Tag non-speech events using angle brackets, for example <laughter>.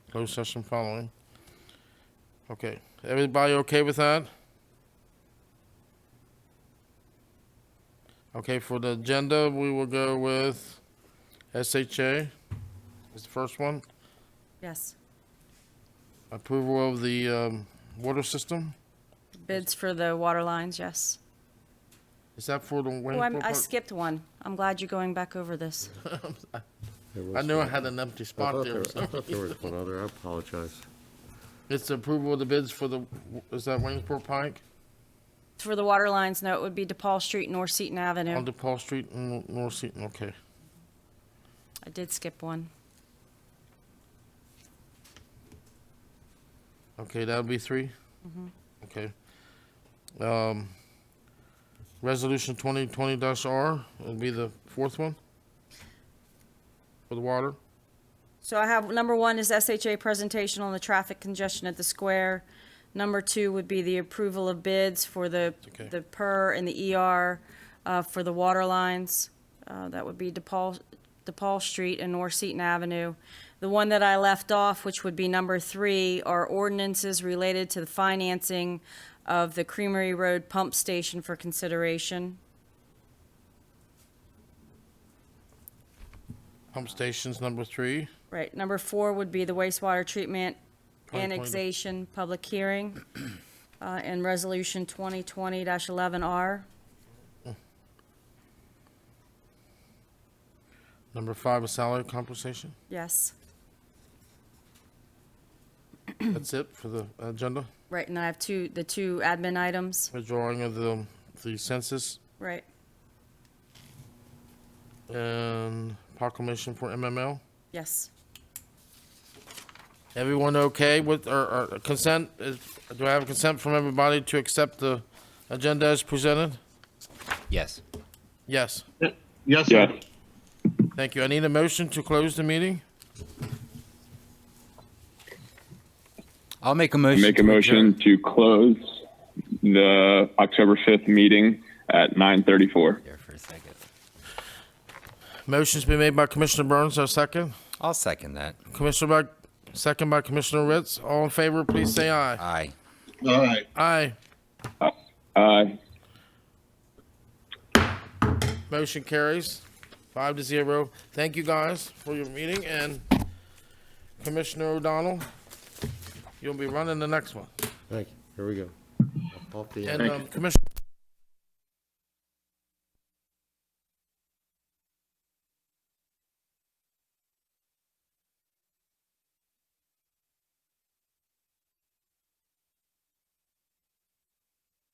Closed session following. Okay, everybody okay with that? Okay, for the agenda, we will go with SHA is the first one. Yes, Approval of the um, water system. bids for the water lines, yes. Is that for the Oh, Waynesboro I'm- I Park? skipped one. I'm glad you're going back over this. I knew I had an empty I spot thought there. there, I thought there was one other, I apologize. It's the approval of the bids for the, is that Waynesboro Pike For the water lines, no, it would be DePaul Street, North Seton on Avenue. DePaul Street and North Seaton? Okay. I did skip one. Okay, that'll be 3 Okay. Um, resolution twenty twenty dash R will be the fourth one for the water. So I have, number one is SHA presentation on the traffic congestion at the square. Number two would be the approval of bids for the, okay. the PER and the ER uh, for the water lines. Uh, That would be DePaul, DePaul Street and North Seton Avenue. The one that I left off, which would be number three, are ordinances related to the financing of the Creamery Road Pump Station for consideration. Pump stations number three. Right, number four would be the wastewater treatment point. annexation public hearing, <clears throat> uh, and resolution twenty twenty eleven R. Number five is salary compensation. Yes, That's it for the agenda. right, and I have two, the two admin items, Withdrawing of the, the census right, and proclamation for MML. yes. Everyone okay with, or, or consent? Is- Do I have consent from everybody to accept the agenda as presented? Yes. Yes. Yes, sir. Thank you. I need a motion to close the meeting. I'll make a motion. Make a to motion adjourn. to close the October 5th meeting at 9:34. Here for a second. Motion's been made by Commissioner Burns, our second. I'll second that. Commissioner by, second by Commissioner Ritz. All in favor, please say aye. Aye. All right. Aye. Aye. Motion carries five to zero. Thank you guys for your meeting and Commissioner O'Donnell, you'll be running the next one. Thank you, here we go. Off the- And Thank um, Commissioner